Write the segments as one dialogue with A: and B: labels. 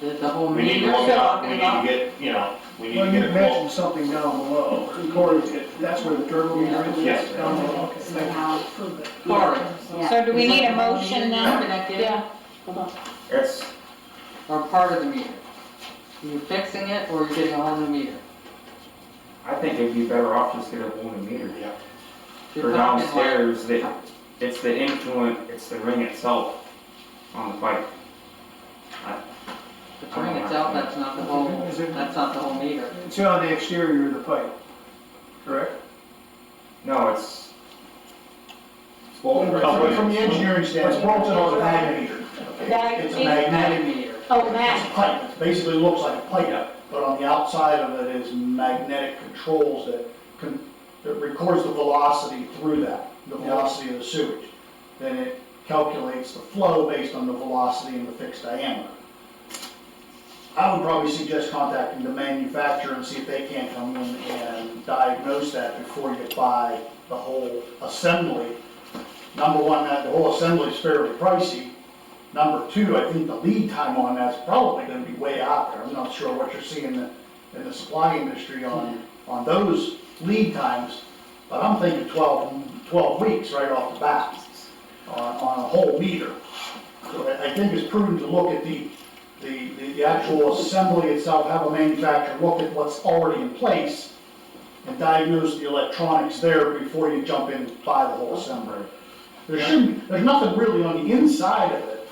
A: the, the whole
B: We need
A: meeting.
B: to look out, we
A: We're
B: need
A: still
B: to
A: talking
B: get, you know, we need
C: Well,
B: to
C: you
B: get a quote.
C: mentioned something down below, Cory, that's where the turbo meter is?
B: Yes.
C: Down below,
A: about
C: okay.
A: Somehow,
D: Forward.
A: yeah.
D: So do we
A: Is
D: need
A: that
D: a
A: the whole
D: motion
A: meter
D: now?
A: Connected?
D: Yeah. Hold on.
B: It's,
A: Or part of the meter? You're fixing it or you're getting a whole new meter?
E: I think it'd be better off just get a whole new meter.
B: yeah,
A: You're
E: For
A: talking
E: downstairs, that, it's the influent, it's the ring itself on the pipe.
A: like The ring itself, that's not the whole,
C: Is it-
A: that's not the whole meter.
C: It's on the exterior of the pipe, correct?
E: No, it's,
B: it's both right
C: Well,
B: there.
C: from the engineering standpoint.
F: It's bolted on a magnet.
D: That
F: It's a
D: is-
F: magnetic,
A: Meter.
D: Oh,
F: it's a
D: Matt,
F: pipe, it basically looks like a
B: Yeah.
F: pipe, but on the outside of it is magnetic controls that can, that records the velocity through that, the velocity of the sewage. Then it calculates the flow based on the velocity and the fixed diameter. I would probably suggest contacting the manufacturer and see if they can come in and diagnose that before you buy the whole assembly. Number one, that the whole assembly is fairly pricey. Number two, I think the lead time on that's probably gonna be way out there. I'm not sure what you're seeing in the, in the supply industry on, on those lead times, but I'm thinking 12 12 weeks right off the bat on, on a whole meter. So I, I think it's prudent to look at the, the, the- the actual assembly itself, have a manufacturer look at what's already in place and diagnose the electronics there before you jump in and buy the whole assembly. There shouldn't, there's nothing really on the inside of it,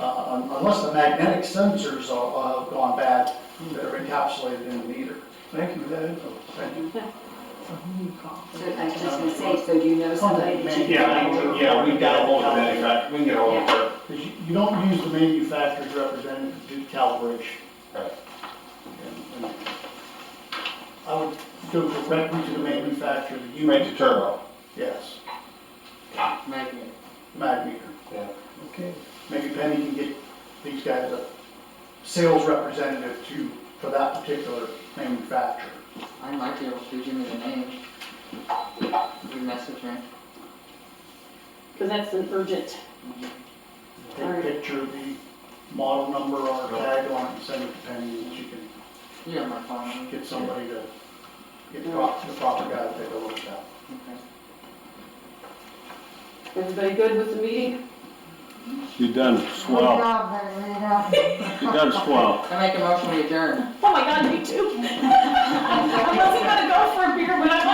F: uh, un- unless the magnetic sensors are, have gone bad, that are encapsulated in the meter.
C: Thank you for that info.
G: So I was just gonna say, so do you know somebody that you?
B: Yeah, we- we- yeah, we got a whole of that, in fact, we can get a whole of it.
F: Because you, you don't use the manufacturer's representative to do calibration.
B: Right.
F: And- and I would go directly to the manufacturer, the
B: You made
F: unit,
B: the turbo,
F: yes,
A: Magnet.
F: mag meter.
B: yeah.
C: Okay.
F: Maybe Penny can get these guys a sales representative to, for that particular manufacturer.
A: I might be able to give me the name. You message me.
D: because that's an urgent.
F: Take a picture of the model number or tag on it and send it to Penny, and she can
A: You have my phone number.
F: get somebody to, get the proper, the proper guy to take a look at that.
A: Okay.
D: Everybody good with the meeting?
H: You done swell. You done swell.
A: I make a motion to adjourn.
D: Oh my God, me too. I wasn't gonna go for a beer, but I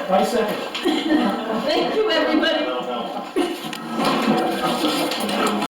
D: might.
F: Vice second.
D: Thank you, everybody.
B: No, no.